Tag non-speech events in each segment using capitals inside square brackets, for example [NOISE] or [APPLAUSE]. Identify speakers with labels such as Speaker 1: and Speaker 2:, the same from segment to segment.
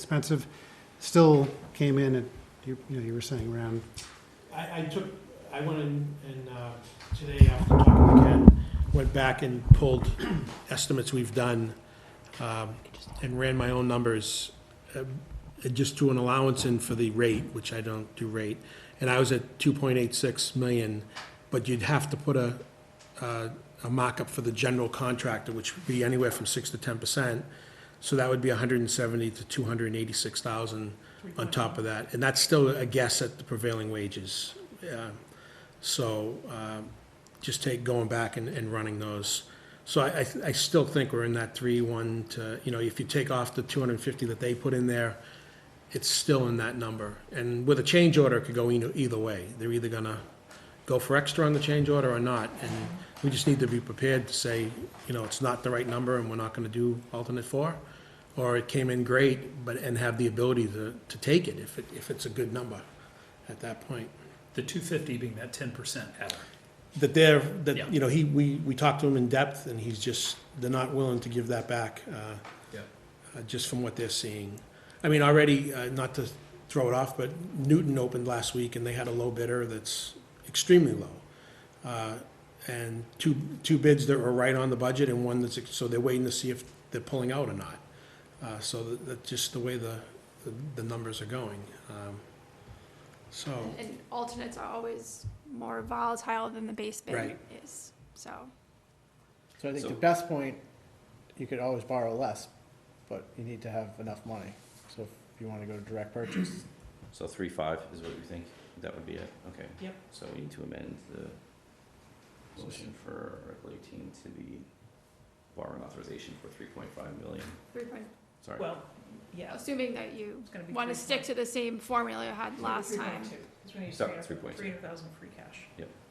Speaker 1: expensive, still came in at, you you know, you were saying around,
Speaker 2: I, I took, I went in, and, uh, today after talking to Ken, went back and pulled [CLEARS THROAT] estimates we've done, um, and ran my own numbers, uh, just to an allowance in for the rate, which I don't do rate, and I was at two point eight six million, but you'd have to put a, uh, a mock-up for the general contractor, which would be anywhere from six to ten percent, so that would be hundred and seventy to two hundred and eighty-six thousand on top of that, and that's still a guess at the prevailing wages. Uh, So um, just take going back and, and running those. So I, I, I still think we're in that three, one to, you know, if you take off the two hundred and fifty that they put in there, it's still in that number. And with a change order, it could go either, either way. They're either gonna go for extra on the change order or not. And we just need to be prepared to say, you know, it's not the right number and we're not gonna do alternate four. Or it came in great, but, and have the ability to, to take it if it, if it's a good number at that point.
Speaker 3: The two fifty being that ten percent adder.
Speaker 2: That they're,
Speaker 3: Yeah.
Speaker 2: that, you know, he, we, we talked to him in depth and he's just, they're not willing to give that back, uh,
Speaker 3: Yeah.
Speaker 2: uh, just from what they're seeing. I mean, already, uh, not to throw it off, but Newton opened last week and they had a low bidder that's extremely low. Uh, And two, two bids that were right on the budget and one that's, so they're waiting to see if they're pulling out or not. Uh, So that, that's just the way the, the- the numbers are going. Um, So,
Speaker 4: And alternates are always more volatile than the base bid
Speaker 2: Right.
Speaker 4: is, so.
Speaker 5: So I think the
Speaker 3: So-
Speaker 5: best point, you could always borrow less, but you need to have enough money. So if you wanna go to direct purchase,
Speaker 6: So three, five is what you think? That would be it? Okay.
Speaker 3: Yep.
Speaker 6: So we need to amend the motion for Article eighteen to be borrowing authorization for three point five million.
Speaker 4: Three point,
Speaker 6: Sorry.
Speaker 3: Well, yeah,
Speaker 4: assuming that you
Speaker 3: it's gonna be.
Speaker 4: want to stick to the same formula you had last time.
Speaker 6: Sorry, three point two.
Speaker 3: free cash.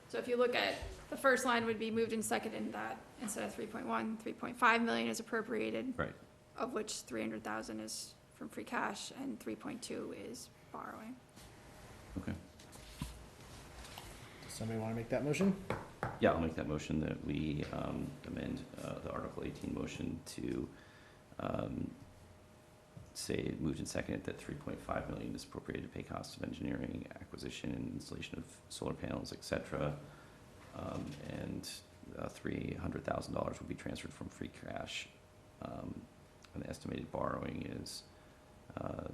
Speaker 4: So if you look at, the first line would be moved and seconded in that, instead of 3.1, 3.5 million is appropriated.
Speaker 6: Right.
Speaker 4: Of which three hundred thousand is from free cash and three point two is borrowing.
Speaker 5: does somebody wanna make that motion?
Speaker 6: Yeah, I'll make that motion that we um, amend uh, the Article eighteen motion to um, say moved and seconded that three point five million is appropriated to pay costs of engineering, acquisition, and installation of solar panels, et cetera. Um, And uh, three hundred thousand dollars will be transferred from free cash. Um, And the estimated borrowing is uh,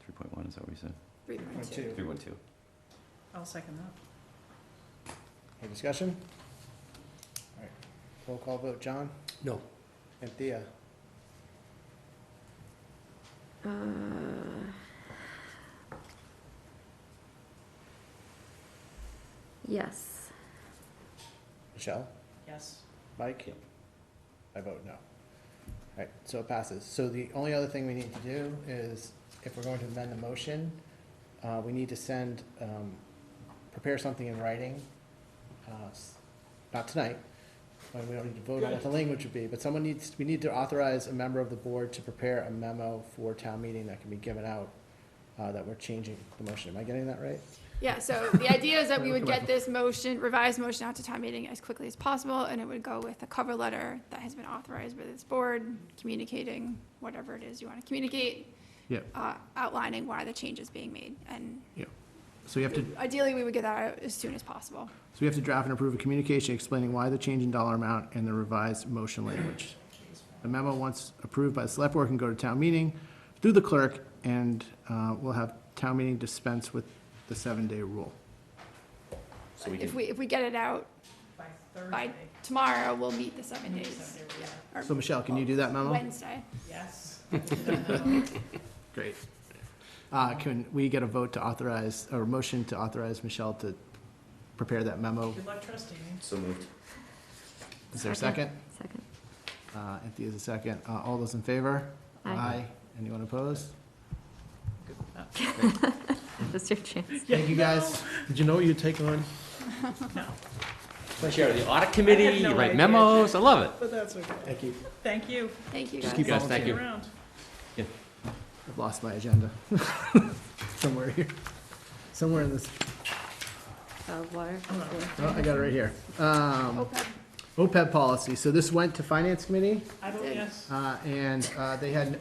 Speaker 6: three point one, is that what we said?
Speaker 4: Three point
Speaker 5: Point
Speaker 4: two.
Speaker 5: two.
Speaker 6: Three one two.
Speaker 3: I'll second that.
Speaker 5: Any discussion? Alright, roll call vote, John?
Speaker 2: No.
Speaker 5: Anthea?
Speaker 7: Uh, Yes.
Speaker 5: Michelle?
Speaker 3: Yes.
Speaker 5: Mike?
Speaker 6: Yep.
Speaker 5: I vote no. Alright, so it passes. So the only other thing we need to do is, if we're going to amend the motion, uh, we need to send, um, prepare something in writing, uh, s- not tonight, when we don't need to vote on what the language would be, but someone needs, we need to authorize a member of the board to prepare a memo for town meeting that can be given out, uh, that we're changing the motion. Am I getting that right?
Speaker 4: Yeah, so
Speaker 5: [LAUGHS]
Speaker 4: the idea is that we would get this motion, revised motion out to town meeting as quickly as possible, and it would go with a cover letter that has been authorized by this board, communicating whatever it is you want to communicate.
Speaker 1: Yep.
Speaker 4: Uh, outlining why the change is being made, and
Speaker 5: So you have to
Speaker 4: ideally, we would get that out as soon as possible.
Speaker 5: So we have to draft and approve a communication explaining why the change in dollar amount and the revised motion language. The memo, once approved by the select board, can go to town meeting through the clerk, and uh, we'll have town meeting dispense with the seven-day rule.
Speaker 6: So we
Speaker 4: If
Speaker 6: can,
Speaker 4: we, if we get it out
Speaker 3: By
Speaker 4: by tomorrow, we'll meet the seven days, or
Speaker 5: So Michelle, can you do that memo?
Speaker 4: Wednesday.
Speaker 3: Yes.
Speaker 5: Great. Uh, Can we get a vote to authorize, or a motion to authorize Michelle to prepare that memo?
Speaker 3: [LAUGHS] Good luck trusting me.
Speaker 6: so moved.
Speaker 5: Is there a second?
Speaker 7: [LAUGHS] Second.
Speaker 5: Uh, Anthea's a second. Uh, All those in favor?
Speaker 7: Aye.
Speaker 5: Anyone opposed?
Speaker 7: That's your chance.
Speaker 5: Thank you, guys.
Speaker 2: did you know what you'd take on?
Speaker 6: Chair of the audit
Speaker 3: committee, I had no you write idea. memos,
Speaker 6: I love it.
Speaker 3: But that's okay.
Speaker 5: Thank you.
Speaker 3: Thank you.
Speaker 4: Thank you guys.
Speaker 5: Just keep
Speaker 6: Guys, thank
Speaker 5: volunteering.
Speaker 6: you.
Speaker 3: Around.
Speaker 5: I've lost my agenda. [LAUGHS] Somewhere here. Somewhere in this,
Speaker 7: Uh, water.
Speaker 5: oh, I got it right here. Um,
Speaker 4: OPEB.
Speaker 5: OPEB policy, so this went to Finance Committee,
Speaker 3: I vote yes.
Speaker 5: uh, and, uh, they had